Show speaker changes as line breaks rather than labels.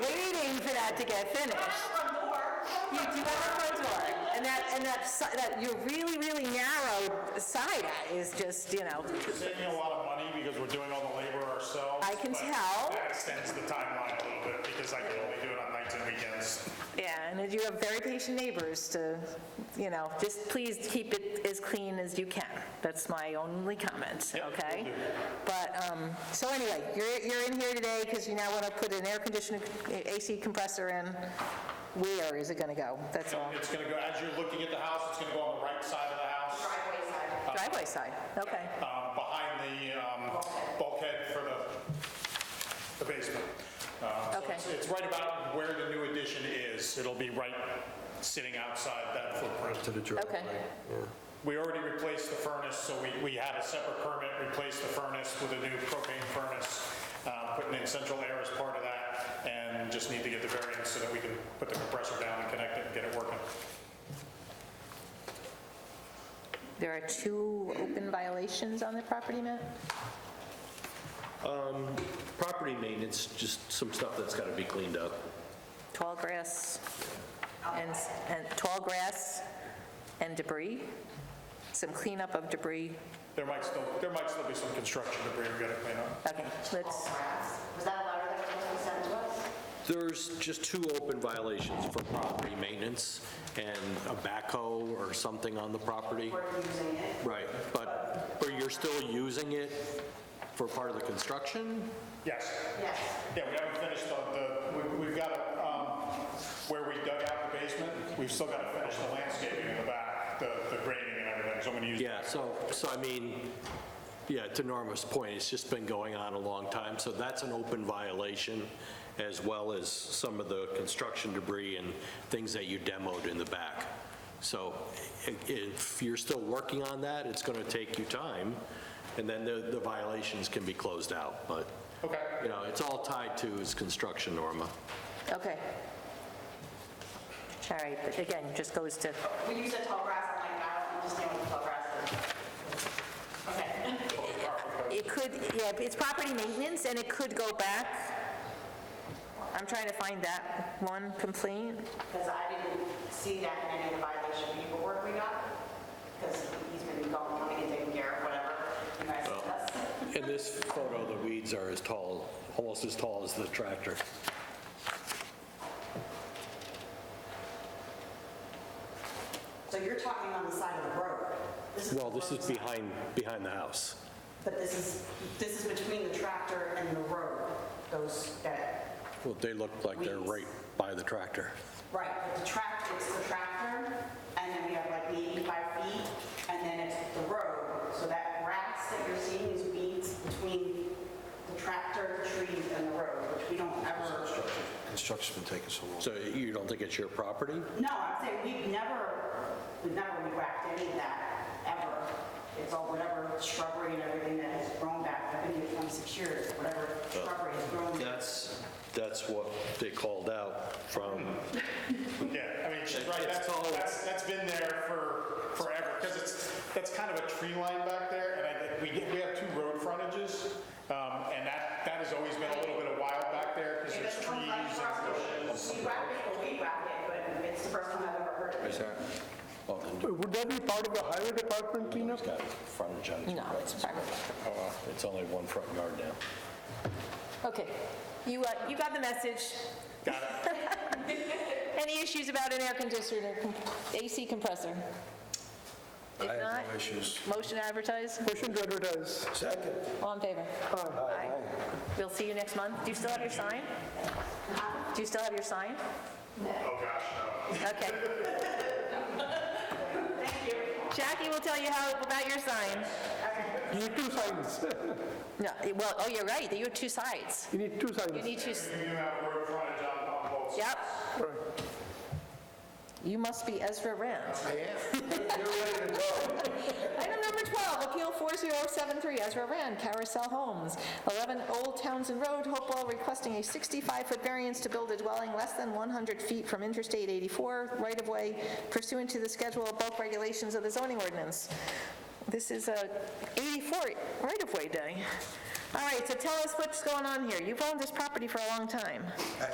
that to get finished. You do have a front door, and that, and that, si- that your really, really narrow side is just, you know,
We're saving a lot of money because we're doing all the labor ourselves.
I can
but
tell.
That extends the timeline a little bit because I can only do it on nights and weekends.
yeah, and if you have very patient neighbors to, you know, just please keep it as clean as you can. That's my only comment, okay? But, um, so anyway, you're, you're in here today because you now want to put an air conditioning, AC compressor in. Where is it going to go? That's all.
It's going to go, as you're looking at the house, it's going to go on the right side of the house,
Driveway side, okay.
um, behind the um, bulkhead for the the basement. Uh, so
Okay.
it's- It's right about where the new addition is. It'll be right sitting outside that footprint.
to the driveway.
We already replaced the furnace, so we, we had a separate permit, replace the furnace with a new propane furnace, uh, putting in central air as part of that, and just need to get the variance so that we can put the compressor down and connect it and get it working.
There are two open violations on the property, Matt?
Property maintenance, just some stuff that's got to be cleaned up.
Tall grass and, and tall grass and debris, some cleanup of debris.
There might still, there might still be some construction debris we gotta clean up.
Okay, let's,
Was that a letter that was sent to us?
There's just two open violations for property maintenance and a backhoe or something on the property.
We're using it.
Right, but, but you're still using it for part of the construction?
Yes,
Yes.
yeah, we haven't finished the- the, we- we've got, um, where we dug out the basement, we've still gotta finish the landscaping in the back, the the grading and everything, so I'm gonna use.
Yeah, so, so I mean, yeah, to Norma's point, it's just been going on a long time, so that's an open violation, as well as some of the construction debris and things that you demoed in the back. So i- if you're still working on that, it's going to take you time, and then the the violations can be closed out, but,
Okay.
you know, it's all tied to is construction, Norma.
okay. All right, but again, just goes to,
When you said tall grass, I'm like, I don't understand what tall grass is. Okay.
it could, yeah, it's property maintenance and it could go back. I'm trying to find that one complaint.
Because I didn't see that in any of the violation paperwork we got, because he's been going, coming and taking care of whatever you guys sent us.
In this photo, the weeds are as tall, almost as tall as the tractor.
So you're talking on the side of the road.
Well, this is behind, behind the house.
But this is, this is between the tractor and the road, those, that,
Well, they look like they're
Weeds.
right by the tractor.
right, the tractor, it's the tractor, and then we have like the 85 feet, and then it's the road. So that grass that you're seeing is weeds between the tractor, the trees, and the road, which we don't ever,
Construction's been taking so long.
So you don't think it's your property?
no, I'm saying we've never, we've never whacked any of that, ever. It's all whatever shrubbery and everything that has grown back, I've been here 26 years, whatever shrubbery has grown.
That's, that's what they called out from,
Yeah, I mean, she's right, that's, that's, that's been there for forever, because it's, that's kind of a tree line back there, and I, think we, we have two road frontages, um, and that, that has always been a little bit of wild back there, because there's trees and bushes.
We whack it, we whack it, but it's the first time I've ever heard of it.
Would that be part of the highway department cleanup?
It's got frontage on it.
No, it's property.
Oh, wow. It's only one front yard now.
Okay, you, uh, you got the message.
Got it,
Any issues about an air conditioner, AC compressor? If
I
not,
have no issues.
motion advertise,
Motion to advertise.
Second.
all in favor? Aye. We'll see you next month. Do you still have your sign? Do you still have your sign?
oh gosh,
Okay. Jackie will tell you how, about your sign.
You need two signs.
No, it- well, oh, you're right, you have two sides.
You need two
You
signs.
need two, s-
no. We do have road frontage on, on both sides.
yep,
Right.
you must be Ezra Rand.
I am. You're ready to go.
Item number 12, Appeal 4073, Ezra Rand, Carousel Homes, 11 Old Townsend Road, Hopewell, requesting a 65-foot variance to build a dwelling less than 100 feet from Interstate 84 right-of-way pursuant to the schedule of bulk regulations of the zoning ordinance. This is a 84 right-of-way day. All right, so tell us what's going on here. You've owned this property for a long time.